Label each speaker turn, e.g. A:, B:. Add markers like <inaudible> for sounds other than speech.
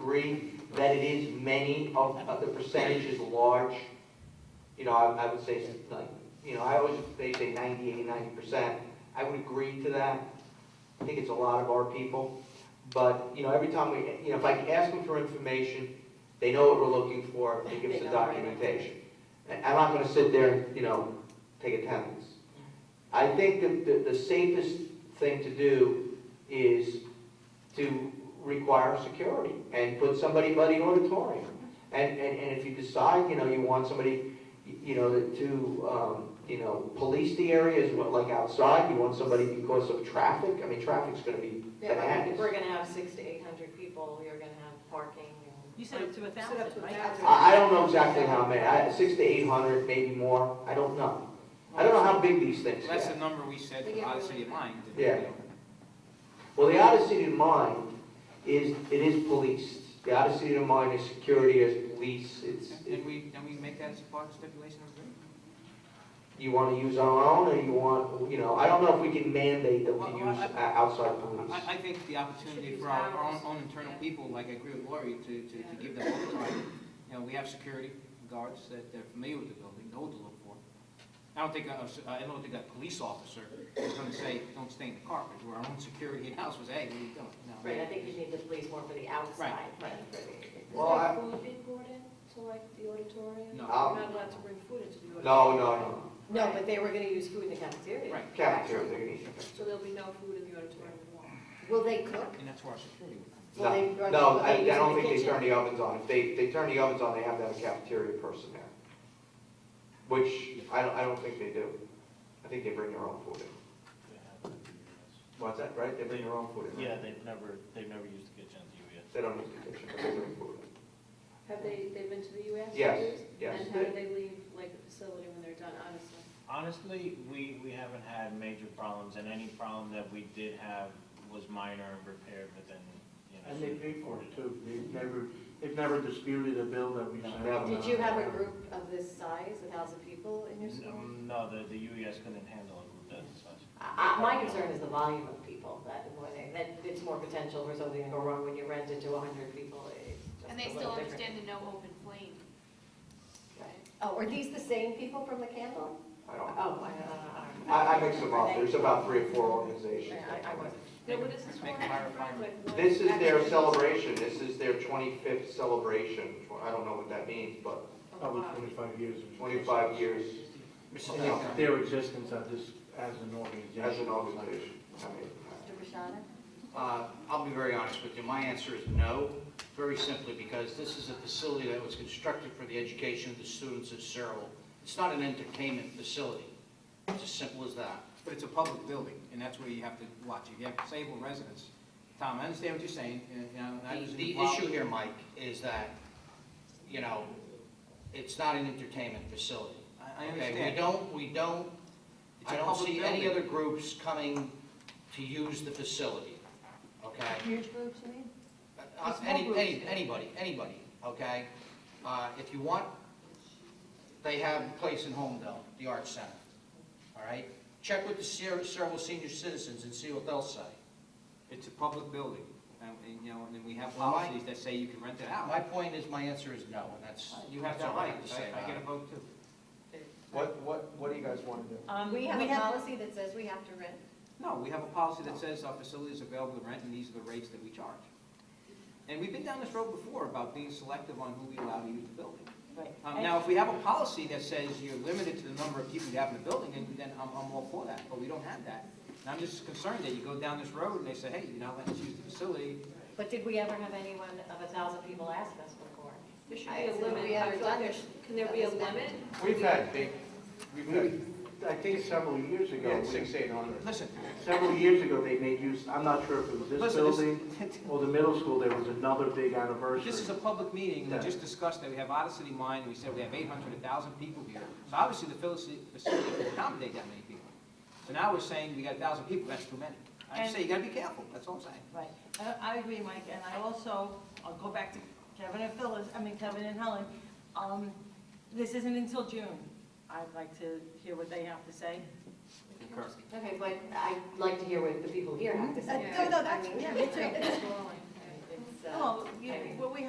A: agree that it is many of, of the percentage is large. You know, I, I would say, like, you know, I always, they say 98, 90 percent. I would agree to that. I think it's a lot of our people. But, you know, every time we, you know, if I ask them for information, they know what we're looking for, they give us the documentation. And I'm not gonna sit there and, you know, take attendance. I think that the, the safest thing to do is to require security and put somebody by the auditorium. And, and, and if you decide, you know, you want somebody, you know, to, um, you know, police the areas, what, like outside, you want somebody because of traffic, I mean, traffic's gonna be
B: Yeah, like, if
A: bananas.
B: we're gonna have six to eight hundred people, you're gonna have parking and.
C: You said up to a
B: Set up to
C: thousand,
B: a
C: right?
B: thousand.
A: I, I don't know exactly how many, I, six to eight hundred, maybe more, I don't know. I don't know how big these things
D: Well,
A: get.
D: That's the number we said
B: They
D: for
B: get
D: Odyssey
B: really
D: of
B: bad.
D: Mind.
A: Yeah. Well, the Odyssey to Mind is, it is policed. The Odyssey to Mind is security, is police, it's,
D: And we, and we make that as a part of stipulation of agreement?
A: you want to use our own, or you want, you know, I don't know if we can mandate that we
D: Well,
A: use
D: I-
A: o- outside police.
D: I, I think the opportunity for our, our own, own internal people, like I agree with Lori, to, to, to give them overtime. You know, we have security guards that they're familiar with the building, know what to look for. I don't think, a- a s- I don't think a police officer is gonna say, don't stay in the car, because our own security in-house was, hey, what are you doing? No.
B: Right, I think you need the police more for the outside.
D: Right, right.
B: than for
A: Well, I-
E: Is there food being brought in to like the auditorium?
D: No.
A: I'll-
E: You're not allowed to bring food into the auditorium?
A: No, no, no,
B: the- No, but they were gonna use food in the cafeteria.
D: Right.
A: cafeteria, they're gonna use it.
E: So there'll be no food in the auditorium at all?
B: Will they cook?
D: And that's where our security would come in.
B: Will they-
A: No,
B: will
A: no,
B: they
A: I, I
B: use
A: don't
B: the
A: think they
B: kitchen?
A: turn the ovens on. If they, they turn the ovens on, they have to have a cafeteria person there. Which, I don't, I don't think they do. I think they bring their own food in. What's that, right? They bring their own food in, right?
F: Yeah, they've never, they've never used the kitchen at the UES.
A: They don't use the kitchen, but they bring food in.
E: Have they, they've been to the US?
A: Yes,
E: years?
A: yes.
E: And how do they leave like the facility when they're done, honestly?
F: Honestly, we, we haven't had major problems, and any problem that we did have was minor and repaired within, you know.
G: And they pay for it too. They've never, they've never disputed a bill that we sent out.
B: Did you have a group of this size, a thousand people in your school?
F: Um, No, the, the UES couldn't handle a group that size.
B: I, I- my concern is the volume of people, that, that it's more potential for something to go wrong when you rent it to a hundred people. It's just
H: And they
B: a
H: still
B: little different.
H: understand the no open flame. right?
B: Oh, are these the same people from the candle?
A: I don't.
B: Oh, I,
A: I, I mix them up, there's about three or four
B: I,
A: organizations.
B: I wasn't.
E: No, what is this
D: Make
E: one?
D: a higher requirement.
A: This is their celebration, this is their 25th celebration, Tw- I don't know what that means, but
B: Oh,
G: Probably twenty-five years.
A: 25 years
D: Mrs.
G: Of
D: Dickinson.
G: Their existence of this as an organization.
A: as an organization. I mean,
B: Mr. Bashada?
I: Uh, I'll be very honest with you, my answer is no, very simply because this is a facility that was constructed for the education of the students of Cyril. It's not an entertainment facility, it's as simple as that.
D: But it's a public building, and that's where you have to watch. If you have disabled residents, Tom, I understand what you're saying, and, and I was
I: The- The
D: involved-
I: issue here, Mike, is that, you know, it's not an entertainment facility.
D: I, I
I: okay?
D: understand.
I: We don't, we don't,
D: It's a
I: I don't
D: public
I: see any
D: building.
I: other groups coming to use the facility, okay?
B: Huge groups, you mean?
I: Uh,
B: Small
I: Any,
B: groups.
I: any, anybody, anybody, okay? Uh, if you want, they have a place in Homedale, the Arts Center, all right? Check with the Ser- Several Senior Citizens and see what they'll say.
D: It's a public building, and, and, you know, and then we have
I: Well, my-
D: policies that say you can rent it out.
I: My point is, my answer is no, and that's,
D: You have
I: that's
D: that
I: all I
D: right,
I: have to say
D: I, I
I: about
D: get a
I: it.
D: vote too.
A: What, what, what do you guys want to do?
C: Um,
B: We have a policy that says we have to rent.
D: No, we have a policy that says our facility is available to rent, and these are the rates that we charge. And we've been down this road before about being selective on who we allow to use the building. Um, now, if we have a policy that says you're limited to the number of people you have in the building, then, then I'm, I'm all for that, but we don't have that. And I'm just concerned that you go down this road and they say, hey, you're not letting us use the facility,
B: But did we ever have anyone of a thousand people ask us before?
E: There should
B: I-
E: be a limit.
B: we
E: I
B: have
E: feel like
B: done
E: there
B: this-
E: should- Can there be a
B: this many.
E: limit? <laughs>
A: We've had big, we've had,
G: I think several years
A: we
G: ago.
A: had
G: we-
A: six, eight hundred.
D: listen,
G: Several years ago, they made use, I'm not sure if it was this
D: listen, this- <laughs>
G: building or the middle school, there was another big anniversary.
D: This is a public meeting, we just discussed that we have Odyssey in mind, and we said we have 800, 1,000 people here. So obviously, the facility facility can accommodate that many people. So now we're saying we got 1,000 people, that's too many. I
C: And-
D: say, you gotta be careful, that's all I'm saying.
C: Right, I- Uh, I agree, Mike, and I also, I'll go back to Kevin and Phyllis, I mean Kevin and Helen. Um, This isn't until June. I'd like to hear what they have to say.
B: Okay, but I'd like to hear what the people here have to
C: Uh,
B: say.
C: no, no, that's-
B: I mean,
C: yeah, me too.
B: It's, uh,
C: Well, you-
B: I mean,